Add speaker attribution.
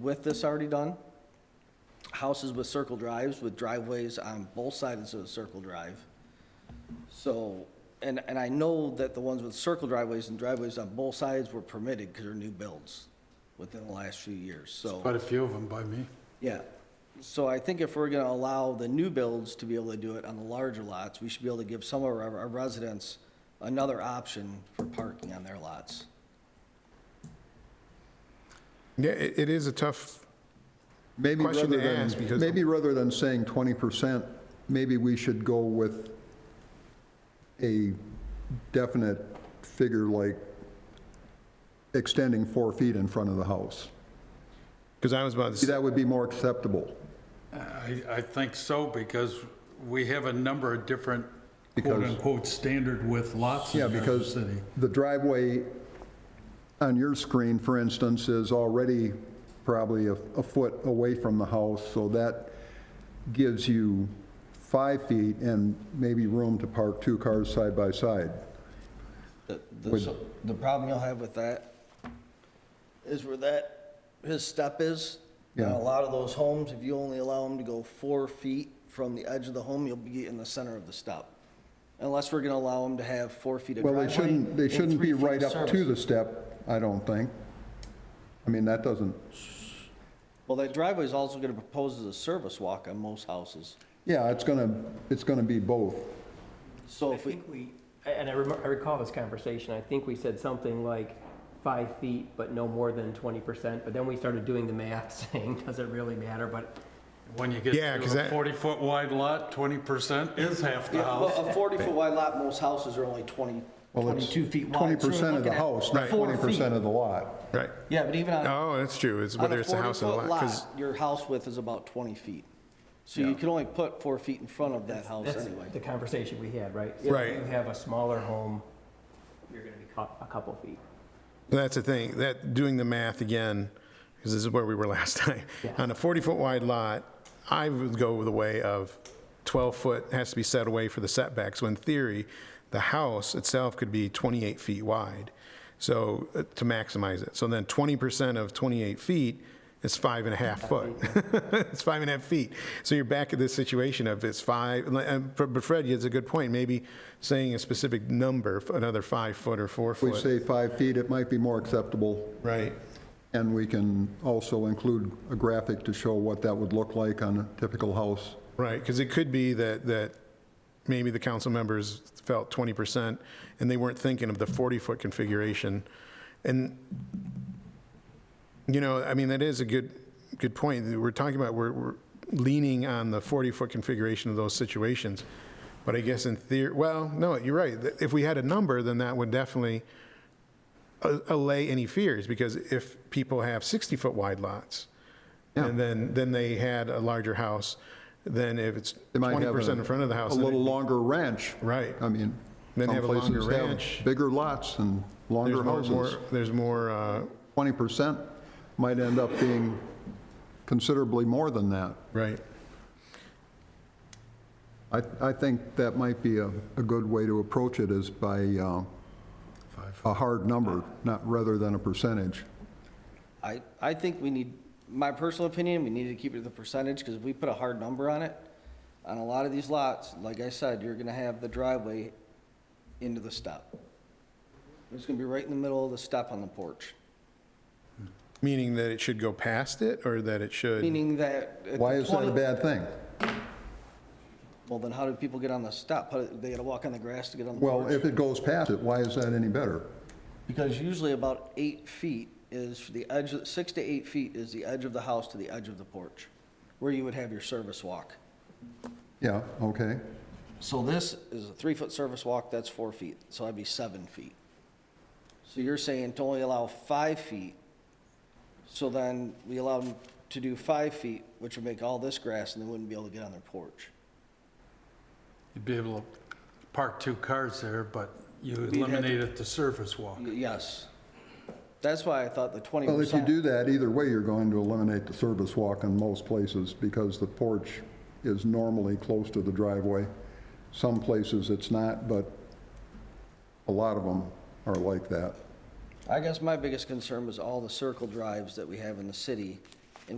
Speaker 1: with this already done. Houses with circle drives, with driveways on both sides of the circle drive. So, and, and I know that the ones with circle driveways and driveways on both sides were permitted because they're new builds within the last few years, so.
Speaker 2: Quite a few of them by me.
Speaker 1: Yeah, so I think if we're gonna allow the new builds to be able to do it on the larger lots, we should be able to give some of our our residents another option for parking on their lots.
Speaker 3: Yeah, it it is a tough,
Speaker 4: Maybe
Speaker 3: Question
Speaker 4: rather
Speaker 3: to ask,
Speaker 4: than,
Speaker 3: because-
Speaker 4: maybe rather than saying 20%, maybe we should go with a definite figure like extending four feet in front of the house.
Speaker 3: because I was about to
Speaker 4: See,
Speaker 3: say,
Speaker 4: That would be more acceptable.
Speaker 2: I, I think so, because we have a number of different
Speaker 4: Because-
Speaker 2: quote-unquote standard with lots in
Speaker 4: Yeah,
Speaker 2: our
Speaker 4: because
Speaker 2: city.
Speaker 4: the driveway on your screen, for instance, is already probably a a foot away from the house, so that gives you five feet and maybe room to park two cars side by side.
Speaker 1: The, the, so the problem you'll have with that is where that, his step is. And
Speaker 4: Yeah.
Speaker 1: a lot of those homes, if you only allow them to go four feet from the edge of the home, you'll be in the center of the step. Unless we're gonna allow them to have four feet of
Speaker 4: Well,
Speaker 1: driveway.
Speaker 4: they shouldn't, they
Speaker 1: and
Speaker 4: shouldn't
Speaker 1: three feet
Speaker 4: be
Speaker 1: of
Speaker 4: right up to
Speaker 1: service.
Speaker 4: the step, I don't think. I mean, that doesn't,
Speaker 1: Well, that driveway is also gonna propose as a service walk on most houses.
Speaker 4: yeah, it's gonna, it's gonna be both.
Speaker 1: So
Speaker 5: I
Speaker 1: if we,
Speaker 5: think we, and I remember, I recall this conversation, I think we said something like five feet, but no more than twenty percent, but then we started doing the math, saying, does it really matter, but
Speaker 2: When you get
Speaker 3: Yeah, 'cause
Speaker 2: to a
Speaker 3: that-
Speaker 2: 40-foot wide lot, 20% is half the
Speaker 1: Yeah,
Speaker 2: house.
Speaker 1: well, uh, a 40-foot wide lot, most houses are only 20,
Speaker 4: Well, it's
Speaker 1: 22 feet wide.
Speaker 4: Twenty
Speaker 1: so you're
Speaker 4: percent of
Speaker 1: looking
Speaker 4: the
Speaker 1: at
Speaker 4: house, not
Speaker 1: four
Speaker 4: twenty
Speaker 1: feet.
Speaker 4: percent of the lot.
Speaker 3: right.
Speaker 1: Yeah, but even on,
Speaker 3: Oh, that's true, it's
Speaker 1: on a
Speaker 3: whether it's the house or the
Speaker 1: 40-foot
Speaker 3: lot, because,
Speaker 1: lot, your house width is about 20 feet. So you can only put four feet in front of that house
Speaker 5: that's
Speaker 1: anyway.
Speaker 5: the conversation we had, right?
Speaker 3: Right.
Speaker 5: If you have a smaller home, you're gonna be cou- a couple feet.
Speaker 3: that's the thing, that, doing the math again, because this is where we were last time.
Speaker 5: Yeah.
Speaker 3: On a 40-foot wide lot, I would go with the way of 12-foot has to be set away for the setbacks, when in theory, the house itself could be 28 feet wide, so, uh, to maximize it. So then 20% of 28 feet is five and a half foot. it's five and a half feet. So you're back at this situation of it's five, and but Fred, it's a good point, maybe saying a specific number, another five foot or four
Speaker 4: If we
Speaker 3: foot.
Speaker 4: say five feet, it might be more acceptable,
Speaker 3: Right.
Speaker 4: and we can also include a graphic to show what that would look like on a typical house.
Speaker 3: Right, because it could be that, that maybe the council members felt 20% and they weren't thinking of the 40-foot configuration. And, you know, I mean, that is a good, good point. We're talking about, we're, we're leaning on the 40-foot configuration of those situations. But I guess in theory, well, no, you're right. If we had a number, then that would definitely a- allay any fears because if people have 60-foot wide lots, and then, then they had a larger house, then if it's
Speaker 4: They might have
Speaker 3: 20% in front of the house.
Speaker 4: A
Speaker 3: then
Speaker 4: little
Speaker 3: it-
Speaker 4: longer ranch.
Speaker 3: Right.
Speaker 4: I mean,
Speaker 3: Then
Speaker 4: some
Speaker 3: have a longer
Speaker 4: places
Speaker 3: ranch.
Speaker 4: have bigger lots and
Speaker 3: There's
Speaker 4: longer
Speaker 3: more- more,
Speaker 4: houses.
Speaker 3: there's more, uh,
Speaker 4: Twenty percent might end up being considerably more than that.
Speaker 3: right.
Speaker 4: I, I think that might be a, a good way to approach it is by uh, a hard number, not rather than a percentage.
Speaker 1: I, I think we need, my personal opinion, we need to keep it to the percentage, because if we put a hard number on it, on a lot of these lots, like I said, you're gonna have the driveway into the step. It's gonna be right in the middle of the step on the porch,
Speaker 3: Meaning that it should go past it or that it should,
Speaker 1: meaning that. at the
Speaker 4: Why is that a
Speaker 1: 20
Speaker 4: bad thing?
Speaker 1: Well, then how do people get on the step? How do- They gotta walk on the grass to get on the
Speaker 4: Well,
Speaker 1: porch?
Speaker 4: if it goes past it, why is that any better?
Speaker 1: Because usually about eight feet is the edge, of- six to eight feet is the edge of the house to the edge of the porch, where you would have your service walk.
Speaker 4: Yeah, okay.
Speaker 1: So this is a three-foot service walk, that's four feet, so that'd be seven feet. So you're saying to only allow five feet, so then we allow them to do five feet, which would make all this grass, and they wouldn't be able to get on their porch.
Speaker 2: You'd be able to park two cars there, but you
Speaker 1: to-
Speaker 2: eliminated the surface walk.
Speaker 1: Y- Yes. That's why I thought the twenty
Speaker 4: Well, if you
Speaker 1: percent.
Speaker 4: do that, either way, you're going to eliminate the service walk in most places because the porch is normally close to the driveway. Some places it's not, but a lot of them are like that.
Speaker 1: I guess my biggest concern was all the circle drives that we have in the city